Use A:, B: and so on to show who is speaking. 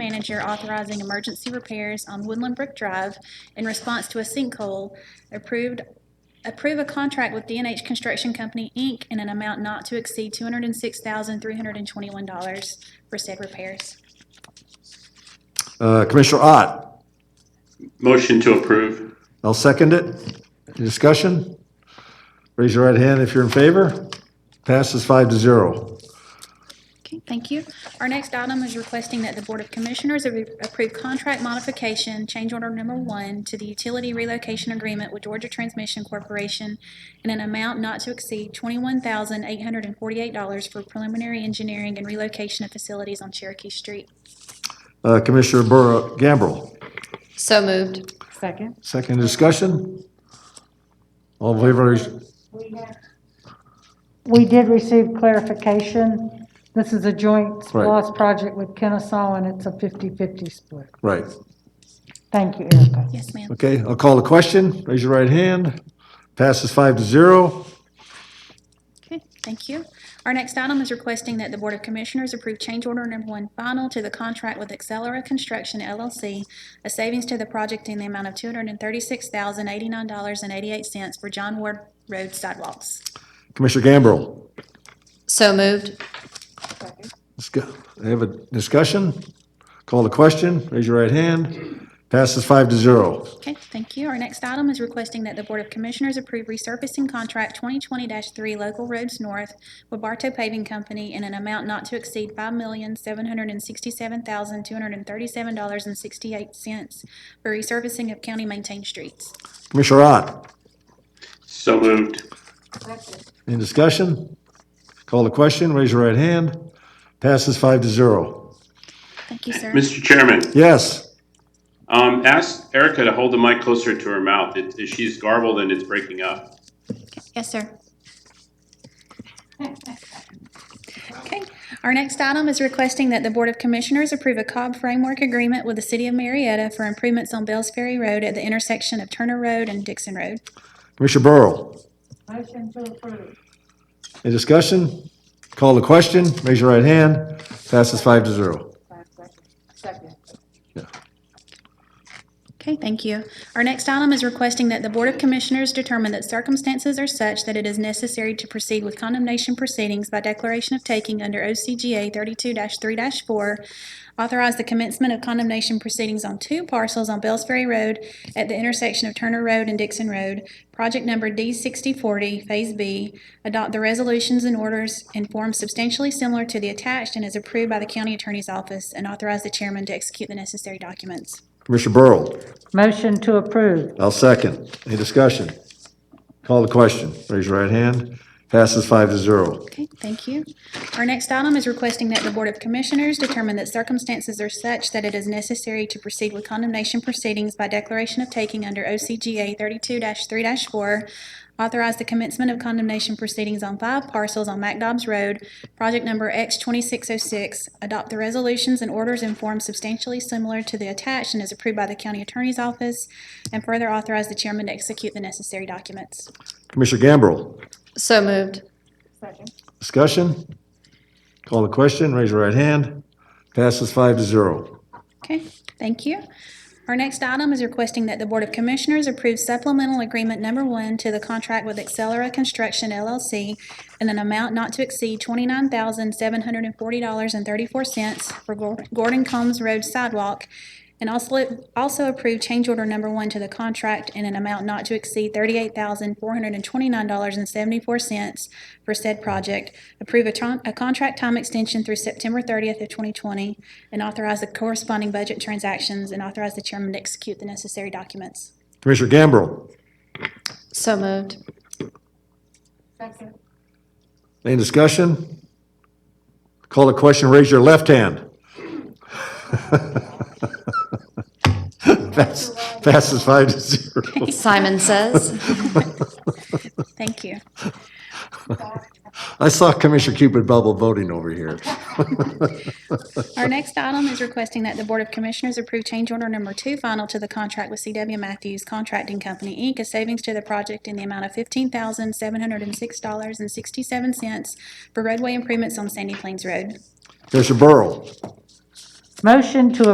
A: manager authorizing emergency repairs on Woodland Brook Drive in response to a sinkhole, approved, approve a contract with DNH Construction Company, Inc. in an amount not to exceed two hundred and six thousand, three hundred and twenty-one dollars for said repairs.
B: Uh, Commissioner Ott,
C: Motion to approve.
B: I'll second it. Any discussion? Raise your right hand if you're in favor. Passes five to zero.
A: Okay, thank you. Our next item is requesting that the Board of Commissioners approve contract modification, change order number one, to the utility relocation agreement with Georgia Transmission Corporation in an amount not to exceed twenty-one thousand eight hundred and forty-eight dollars for preliminary engineering and relocation of facilities on Cherokee Street.
B: Uh, Commissioner Burrow, Gambrel,
D: So moved.
E: Second.
B: second discussion? All in favor,
E: We did receive clarification. This is a joint SPOS project with Kennesaw, and it's a 50-50 split.
B: right.
E: Thank you, Erica.
A: Yes, ma'am.
B: Okay, I'll call the question. Raise your right hand. Passes five to zero.
A: Okay, thank you. Our next item is requesting that the Board of Commissioners approve change order number one final to the contract with Accelera Construction LLC, a savings to the project in the amount of two hundred and thirty-six thousand eighty-nine dollars and eighty-eight cents for John Ward Road sidewalks.
B: Commissioner Gambrel,
D: So moved.
B: let's go. Have a discussion? Call the question. Raise your right hand. Passes five to zero.
A: Okay, thank you. Our next item is requesting that the Board of Commissioners approve resurfacing contract twenty twenty three Local Roads North with Bartow Paving Company in an amount not to exceed five million, seven hundred and sixty-seven thousand, two hundred and thirty-seven dollars and sixty-eight cents for resurfacing of county-maintained streets.
B: Commissioner Ott,
C: So moved.
B: Any discussion? Call the question, raise your right hand. Passes five to zero.
A: Thank you, sir.
C: Mr. Chairman,
B: Yes,
C: um, ask Erica to hold the mic closer to her mouth. It, it- she's garbled and it's breaking up.
A: Yes, sir. Okay, our next item is requesting that the Board of Commissioners approve a Cobb Framework Agreement with the City of Marietta for improvements on Bells Ferry Road at the intersection of Turner Road and Dixon Road.
B: Commissioner Burrow.
E: Motion to approve.
B: Any discussion? Call the question, raise your right hand. Passes five to zero.
E: Second.
A: Okay, thank you. Our next item is requesting that the Board of Commissioners determine that circumstances are such that it is necessary to proceed with condemnation proceedings by declaration of taking under OCGA thirty-two three four. Authorize the commencement of condemnation proceedings on two parcels on Bells Ferry Road at the intersection of Turner Road and Dixon Road, project number D sixty forty, Phase B. Adopt the resolutions and orders in form substantially similar to the attached and is approved by the county attorney's office and authorize the chairman to execute the necessary documents.
B: Commissioner Burrow,
E: Motion to approve.
B: I'll second. Any discussion? Call the question, raise your right hand. Passes five to zero.
A: Okay, thank you. Our next item is requesting that the Board of Commissioners determine that circumstances are such that it is necessary to proceed with condemnation proceedings by declaration of taking under OCGA thirty-two three four. Authorize the commencement of condemnation proceedings on five parcels on McDobbs Road, project number X twenty-six oh six. Adopt the resolutions and orders in form substantially similar to the attached and is approved by the county attorney's office. And further authorize the chairman to execute the necessary documents.
B: Commissioner Gambrel,
D: So moved.
B: discussion? Call the question, raise your right hand. Passes five to zero.
A: Okay, thank you. Our next item is requesting that the Board of Commissioners approve supplemental agreement number one to the contract with Accelera Construction LLC in an amount not to exceed twenty-nine thousand, seven hundred and forty dollars and thirty-four cents for Gor- Gordon Combs Road sidewalk, and also, also approve change order number one to the contract in an amount not to exceed thirty-eight thousand, four hundred and twenty-nine dollars and seventy-four cents for said project. Approve a, tron- a contract time extension through September thirtieth of twenty twenty, and authorize the corresponding budget transactions, and authorize the chairman to execute the necessary documents.
B: Commissioner Gambrel,
D: So moved.
B: Any discussion? Call the question, raise your left hand. Pass- Passes five to zero.
D: Simon says.
A: Thank you.
B: I saw Commissioner Cupid bubble voting over here.
A: Our next item is requesting that the Board of Commissioners approve change order number two final to the contract with CW Matthews Contracting Company, Inc., a savings to the project in the amount of fifteen thousand, seven hundred and six dollars and sixty-seven cents for roadway improvements on Sandy Plains Road.
B: Commissioner Burrow?
E: Motion to